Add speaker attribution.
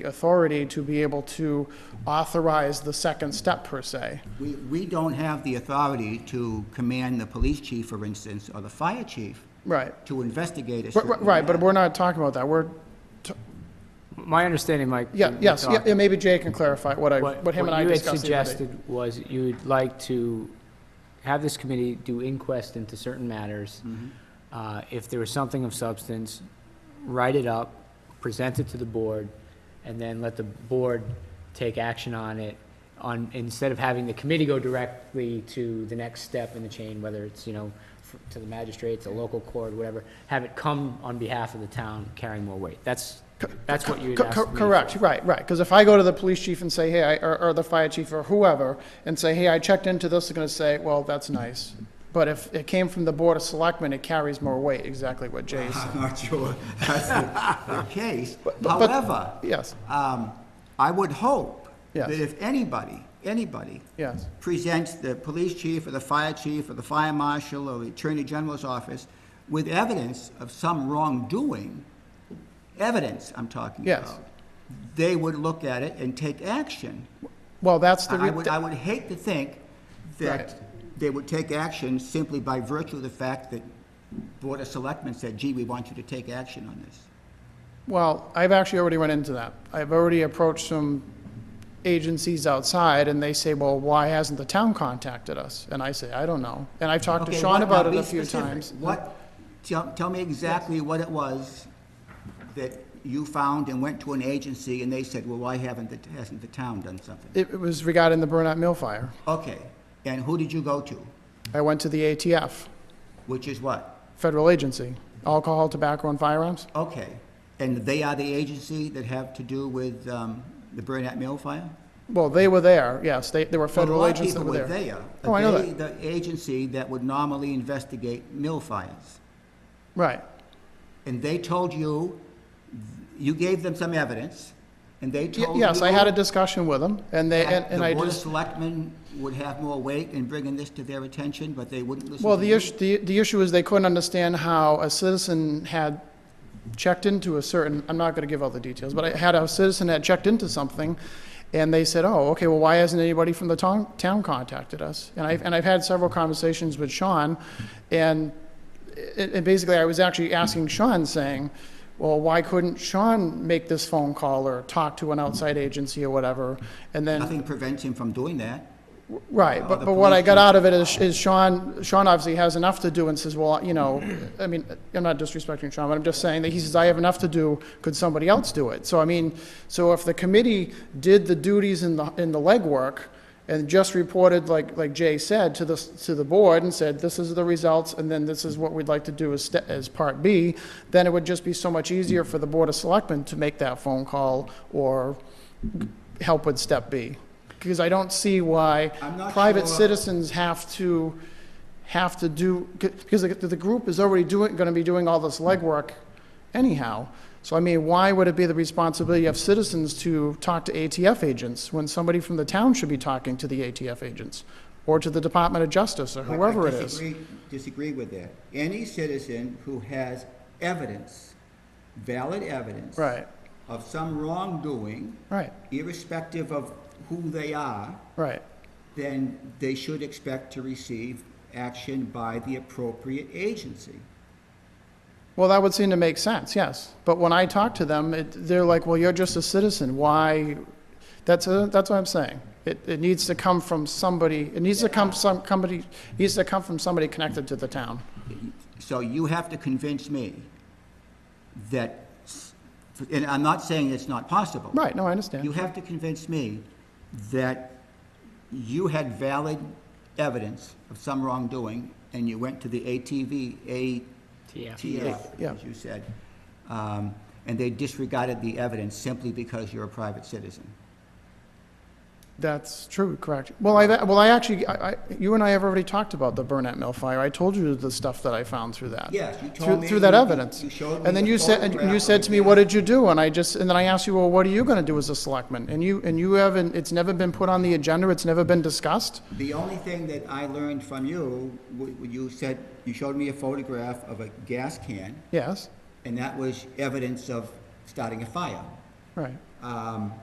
Speaker 1: the authority to be able to authorize the second step per se.
Speaker 2: We, we don't have the authority to command the police chief, for instance, or the fire chief
Speaker 1: Right.
Speaker 2: to investigate a
Speaker 1: Right,
Speaker 2: certain...
Speaker 1: Right, right, but we're not talking about that. We're, t-
Speaker 3: My understanding, Mike.
Speaker 1: yeah,
Speaker 3: when we
Speaker 1: yes, yeah,
Speaker 3: talked,
Speaker 1: yeah, maybe Jay can clarify what I, what him and I discussed the
Speaker 3: you had
Speaker 1: other day.
Speaker 3: suggested was you would like to have this committee do inquest into certain matters. Uh, If there was something of substance, write it up, present it to the board, and then let the board take action on it on, instead of having the committee go directly to the next step in the chain, whether it's, you know, f- to the magistrates, the local court, whatever, have it come on behalf of the town carrying more weight. That's, that's what you had
Speaker 1: Co-
Speaker 3: asked
Speaker 1: co-
Speaker 3: me for.
Speaker 1: Correct, right, right. Because if I go to the police chief and say, hey, I- or, or the fire chief or whoever, and say, hey, I checked into this, they're going to say, well, that's nice. But if it came from the board of selectmen, it carries more weight, exactly what Jay said.
Speaker 2: I'm not sure that's the the case.
Speaker 1: but- but-
Speaker 2: However,
Speaker 1: Yes,
Speaker 2: um, I would hope
Speaker 1: Yes.
Speaker 2: that if anybody, anybody
Speaker 1: yes,
Speaker 2: presents the police chief or the fire chief or the fire marshal or the attorney general's office with evidence of some wrongdoing, evidence I'm talking
Speaker 1: Yes.
Speaker 2: about, they would look at it and take action.
Speaker 1: well, that's the,
Speaker 2: I I
Speaker 1: re-
Speaker 2: would, I would hate to think
Speaker 1: Right.
Speaker 2: that they would take action simply by virtue of the fact that Board of Selectmen said, gee, we want you to take action on this.
Speaker 1: well, I've actually already run into that. I've already approached some agencies outside, and they say, well, why hasn't the town contacted us? And I say, I don't know. And I've talked to
Speaker 2: Okay,
Speaker 1: Sean
Speaker 2: what-
Speaker 1: about
Speaker 2: now
Speaker 1: it
Speaker 2: be
Speaker 1: a few
Speaker 2: specific.
Speaker 1: times.
Speaker 2: What, tell, tell me exactly what it was that you found and went to an agency and they said, well, why haven't, the- hasn't the town done something?
Speaker 1: It it was regarding the Burnett Mill fire.
Speaker 2: Okay, and who did you go to?
Speaker 1: I went to the ATF.
Speaker 2: Which is what?
Speaker 1: federal agency, alcohol, tobacco, and firearms?
Speaker 2: Okay, and they are the agency that have to do with, um, the Burnett Mill fire?
Speaker 1: Well, they were there, yes, they, there were
Speaker 2: Well,
Speaker 1: federal agents that were
Speaker 2: A lot of
Speaker 1: there.
Speaker 2: people were there.
Speaker 1: Oh, I know
Speaker 2: They, the agency that would normally investigate mill fires.
Speaker 1: Right,
Speaker 2: And they told you, you gave them some evidence, and they
Speaker 1: Y-
Speaker 2: told you...
Speaker 1: yes, I had a discussion with them, and they, and
Speaker 2: that
Speaker 1: and I
Speaker 2: The Board of
Speaker 1: just,
Speaker 2: Selectmen would have more weight in bringing this to their attention, but they wouldn't listen to you?
Speaker 1: well, the issue, the, the issue is they couldn't understand how a citizen had checked into a certain, I'm not gonna give all the details, but I had a citizen had checked into something, and they said, oh, okay, well, why hasn't anybody from the town, town contacted us? And I've, and I've had several conversations with Sean, and it, it basically, I was actually asking Sean, saying, well, why couldn't Sean make this phone call or talk to an outside agency or whatever? And then,
Speaker 2: Nothing prevents him from doing that.
Speaker 1: right,
Speaker 2: Oh,
Speaker 1: but,
Speaker 2: the
Speaker 1: but what I
Speaker 2: police
Speaker 1: got
Speaker 2: chief.
Speaker 1: out of it is, is Sean, Sean obviously has enough to do and says, well, you know, I mean, I'm not disrespecting Sean, but I'm just saying that he says, I have enough to do, could somebody else do it? So I mean, so if the committee did the duties and the, and the legwork and just reported, like, like Jay said, to the, to the board and said, this is the results, and then this is what we'd like to do as, ste- as part B, then it would just be so much easier for the Board of Selectmen to make that phone call or help with step B. Because I don't see why
Speaker 2: I'm not
Speaker 1: private
Speaker 2: sure-
Speaker 1: citizens have to, have to do, because the, the group is already doing, gonna be doing all this legwork anyhow. So I mean, why would it be the responsibility of citizens to talk to ATF agents when somebody from the town should be talking to the ATF agents? Or to the Department of Justice or
Speaker 2: I- I
Speaker 1: whoever it is?
Speaker 2: disagree- Disagree with that. Any citizen who has evidence, valid evidence.
Speaker 1: Right.
Speaker 2: Of some wrongdoing,
Speaker 1: Right,
Speaker 2: irrespective of who they are,
Speaker 1: right.
Speaker 2: then they should expect to receive action by the appropriate agency.
Speaker 1: Well, that would seem to make sense, yes. But when I talk to them, it, they're like, well, you're just a citizen. Why? That's, a, that's what I'm saying. It, it needs to come from somebody, it needs to come some, somebody, needs to come from somebody connected to the town.
Speaker 2: So you have to convince me that, and I'm not saying it's not possible.
Speaker 1: Right, no, I
Speaker 2: You
Speaker 1: understand.
Speaker 2: have to convince me that you had valid evidence of some wrongdoing, and you went to the ATV,
Speaker 3: Yeah.
Speaker 2: ATF,
Speaker 1: Yeah.
Speaker 2: as you said, um, and they disregarded the evidence simply because you're a private citizen.
Speaker 1: That's true, correct. Well, I, well, I actually, I, I, you and I have already talked about the Burnett Mill fire. I told you the stuff that I found through that.
Speaker 2: Yes, you told
Speaker 1: through,
Speaker 2: me
Speaker 1: through that
Speaker 2: you-
Speaker 1: evidence.
Speaker 2: you showed me
Speaker 1: and then
Speaker 2: the
Speaker 1: you said, and you
Speaker 2: photograph
Speaker 1: said
Speaker 2: of
Speaker 1: to me,
Speaker 2: the-
Speaker 1: "What did you do?" And I just, and then I asked you, "Well, what are you going to do as a selectman?" And you, and you haven't. It's never been put on the agenda. It's never been discussed.
Speaker 2: The only thing that I learned from you, w- you said, you showed me a photograph of a gas can,
Speaker 1: Yes,
Speaker 2: and that was evidence of starting a fire.
Speaker 1: right.
Speaker 2: um,